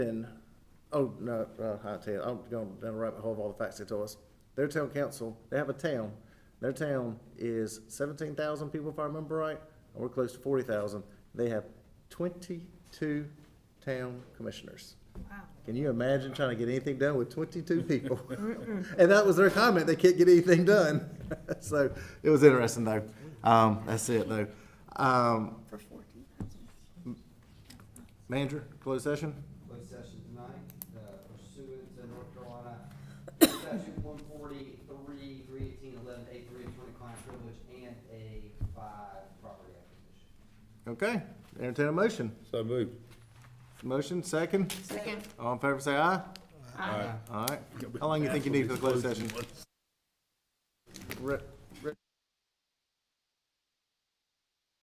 then, oh, no, uh, I tell you, I'm going down the rabbit hole of all the facts they told us. Their town council, they have a town, their town is seventeen thousand people, if I remember right, and we're close to forty thousand. They have twenty-two town commissioners. Can you imagine trying to get anything done with twenty-two people? And that was their comment, they can't get anything done. So, it was interesting though. Um, that's it though. Um, For fourteen thousand. manager, closed session? closed session tonight, uh, pursuant to North Carolina statute one forty-three, three eighteen, eleven, eight, three, attorney-client privilege, and a five property acquisition. Okay, entertain a motion. So moved. Motion, second. Second. All in favor, say aye. All right. All right. How long you think you need for the closed session? Re-